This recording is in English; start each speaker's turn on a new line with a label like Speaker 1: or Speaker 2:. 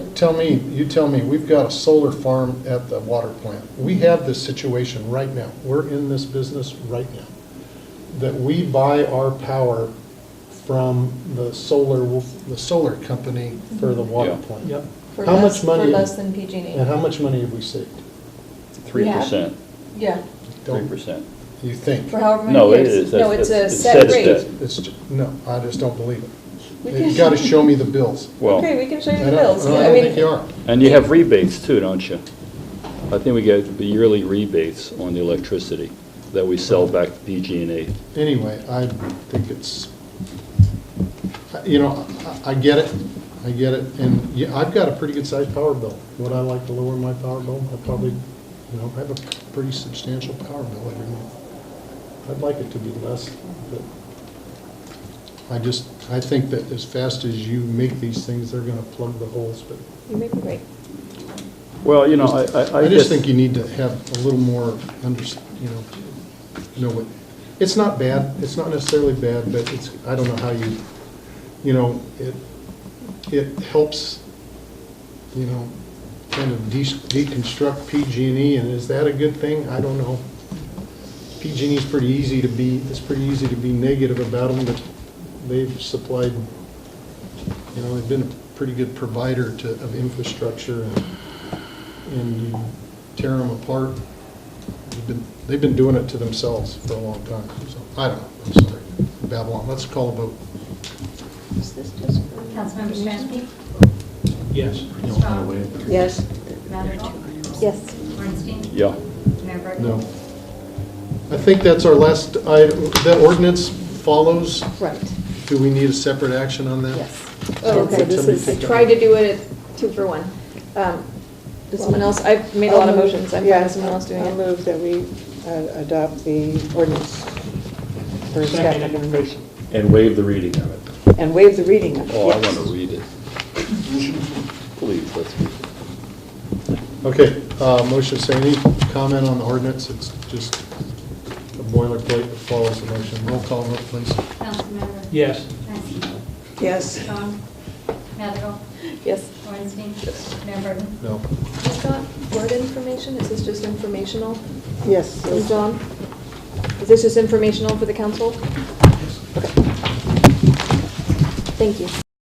Speaker 1: tell me, you tell me, we've got a solar farm at the water plant. We have this situation right now. We're in this business right now. That we buy our power from the solar, the solar company for the water
Speaker 2: Yeah.
Speaker 1: plant.
Speaker 3: Yep.
Speaker 4: For
Speaker 1: How much
Speaker 4: less-
Speaker 1: money- Uh-huh.
Speaker 4: For less than PG&E.
Speaker 1: And how much money have we saved?
Speaker 2: Three
Speaker 4: Yeah.
Speaker 2: percent,
Speaker 4: Yeah,
Speaker 2: three
Speaker 1: Don't-
Speaker 2: percent.
Speaker 1: You think?
Speaker 4: for however many
Speaker 2: No, it
Speaker 4: years.
Speaker 2: is.
Speaker 4: No,
Speaker 2: That's-
Speaker 4: it's a
Speaker 2: that's- it's
Speaker 4: set
Speaker 2: set
Speaker 4: rate.
Speaker 2: as
Speaker 1: It's, ju- no, I just don't believe it.
Speaker 4: We
Speaker 1: You've
Speaker 4: can-
Speaker 1: got to show me the bills.
Speaker 4: Okay,
Speaker 2: Well,
Speaker 4: we can show you
Speaker 1: I
Speaker 4: the
Speaker 1: don't-
Speaker 4: bills.
Speaker 1: I
Speaker 4: I
Speaker 1: don't
Speaker 4: mean,
Speaker 1: think you are.
Speaker 2: and you have rebates too, don't you? I think we get the yearly rebates on the electricity that we sell back to PG&E.
Speaker 1: Anyway, I think it's, you know, I- I get it, I get it, and yeah, I've got a pretty good-sized power bill. Would I like to lower my power bill? I probably, you know, I have a pretty substantial power bill every month. I'd like it to be less, but I just, I think that as fast as you make these things, they're gonna plug the holes, but
Speaker 4: you may be right.
Speaker 2: Well, you know, I, I.
Speaker 1: I
Speaker 2: guess-
Speaker 1: just think you need to have a little more, under, you know, know what, it's not bad, it's not necessarily bad, but it's, I don't know how you, you know, it, it helps, you know, kind of de- deconstruct PG&E, and is that a good thing? I don't know. PG&E E is pretty easy to be, it's pretty easy to be negative about them, but they've supplied, you know, they've been a pretty good provider to, of infrastructure and and you tear them apart. They've been, they've been doing it to themselves for a long time, so, I don't know, I'm sorry. Babylon, let's call a vote.
Speaker 4: Is this just for?
Speaker 5: Councilmember Stransky?
Speaker 3: Yes.
Speaker 5: Strong?
Speaker 4: Yes.
Speaker 5: Madrigal?
Speaker 4: Yes.
Speaker 5: Weinstein?
Speaker 2: Yeah.
Speaker 5: Mayor Burton?
Speaker 1: No. I think that's our last item, that ordinance follows.
Speaker 6: Right,
Speaker 1: Do we need a separate action on that?
Speaker 6: yes.
Speaker 1: Oh,
Speaker 6: Okay, this
Speaker 1: somebody
Speaker 6: is,
Speaker 1: take
Speaker 6: I
Speaker 1: that.
Speaker 6: tried to do it at two for one. Um,
Speaker 4: Does someone else, I've made a
Speaker 1: Um,
Speaker 4: lot of motions, I'm fine with someone else doing
Speaker 7: I'll
Speaker 4: it.
Speaker 7: Um, move that we uh, adopt the ordinance for staff
Speaker 3: Second.
Speaker 7: recommendation.
Speaker 2: And waive the reading of it.
Speaker 7: And waive the reading of it.
Speaker 2: Oh, I
Speaker 7: yes.
Speaker 2: want to read it. Please, let's read it.
Speaker 1: Okay, uh, motion, say any comment on the ordinance? It's just a boilerplate that follows the motion. Roll call vote, please.
Speaker 5: Councilmember?
Speaker 3: Yes.
Speaker 5: Stransky?
Speaker 4: Um,
Speaker 7: Yes.
Speaker 5: Strong? Madrigal?
Speaker 4: Yes.
Speaker 5: Weinstein? Mayor Burton?
Speaker 1: No.
Speaker 4: Is that word information, is this just informational?
Speaker 7: Yes.
Speaker 4: Is John? Is this just informational for the council? Okay. Thank you.